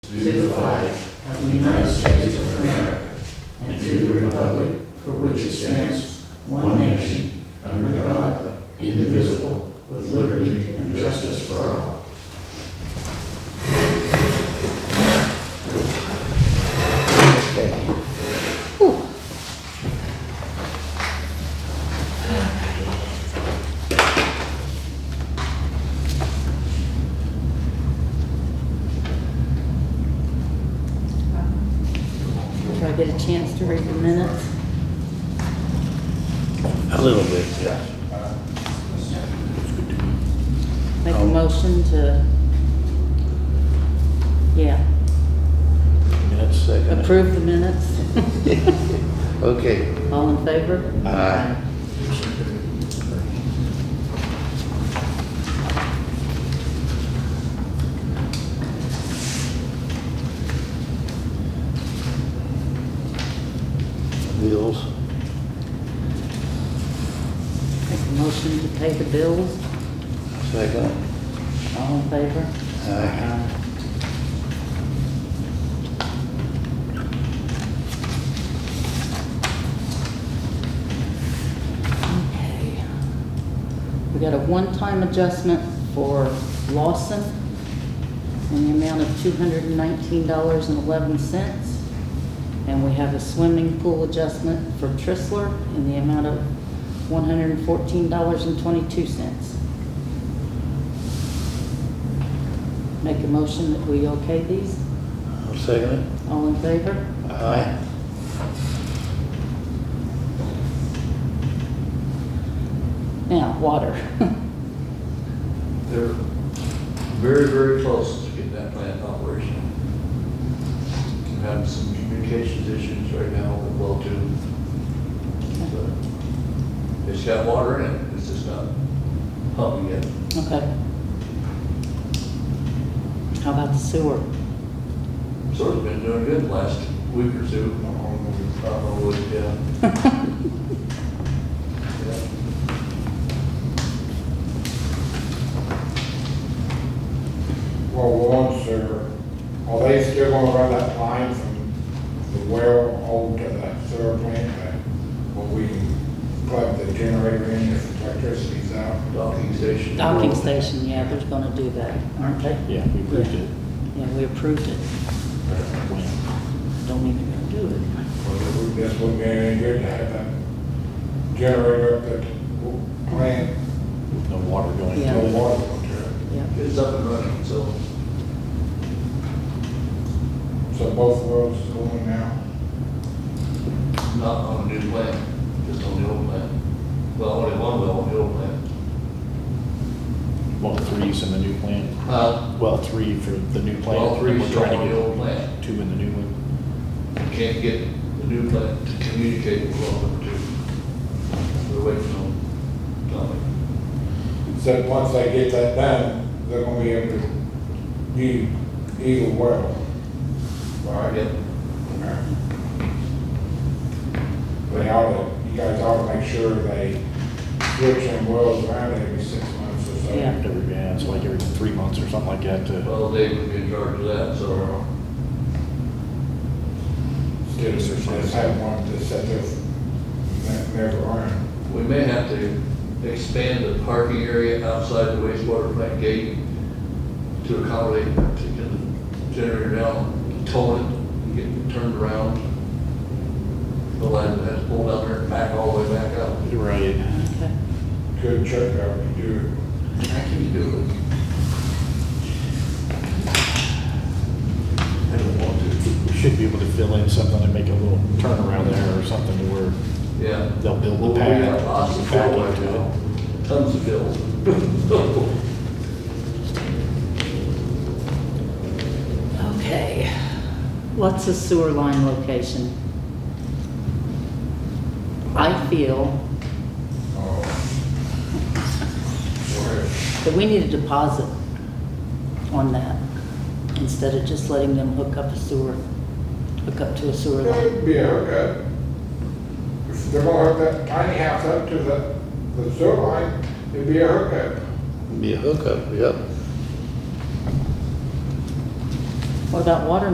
to the flag of the United States of America and to the republic for which it stands, one nation, under God, indivisible, with liberty and justice for all. Do I get a chance to read the minutes? A little bit, yeah. Make a Um, motion to, yeah, Minute second. approve the minutes? Okay, uh, All in favor? Aye. bills. Make a motion to pay the bills? Second. All in favor? Aye. Okay. We got a one-time adjustment for Lawson in the amount of two hundred and nineteen dollars and eleven cents. And we have a swimming pool adjustment for Trissler in the amount of one hundred and fourteen dollars and twenty-two cents. Make a motion that we okay these? I'll second Uh, All in favor? it. Aye. Now, water. They're very, very close to getting that plant operational. We're Having some communications issues right now with well two. But It's got water in it, it's just not pumping yet. Okay. How about the sewer? Sort of been doing good the last week or two. I don't know what, yeah. Yeah. Well, one sewer, are they still gonna run that line from the well over to that sewer plant? uh, Where we can plug the generator in if electricity's out? Docking station. Docking station, yeah, they're gonna do that, aren't they? Yeah, we approved it. Yeah, we approved it. Don't even do it. Well, it would- this would be any good to have that generator up at the plant, No water going Yeah. no into it. water going to it. Yeah. It's up and running, so So both wells is going now? not on a new plant, just on the old plant. Well, only one well on the old plant. Well, three's in the new plant. Uh, Well, three for the new plant. Well, three We're still trying on to the get old plant. Two in the new one. Can't get the new plant to communicate with all of them. We're waiting on Tommy. So once they get that done, they're gonna be able to use either well. Right? Yep. They ought to, you guys ought to make sure they switch them wells around every six months or so. Yeah. Every, yeah, it's like every three months or something like that to. Well, Dave would be in charge of that, so uh, So. Instead of just having one to set this, that never run. we may have to expand the parking area outside the wastewater plant gate to accommodate, to get the generator down, tow it, and get it turned around. The line that has to pull down there and back all the way back up. Right. Okay. Good check out to do it. I can do it. I don't want to. We should be able to fill in something and make a little turnaround there or something to where Yeah. They'll build the Well, we pad, got lots of the pad fill into right now. Tons of fill. Okay. What's the sewer line location? I feel Oh. that we need a deposit on that instead of just letting them hook up a sewer, hook up to a sewer line. It'd be a hookup. If they're gonna hook that tiny house up to the, the sewer line, it'd be a hookup. Be a hookup, yep. What about water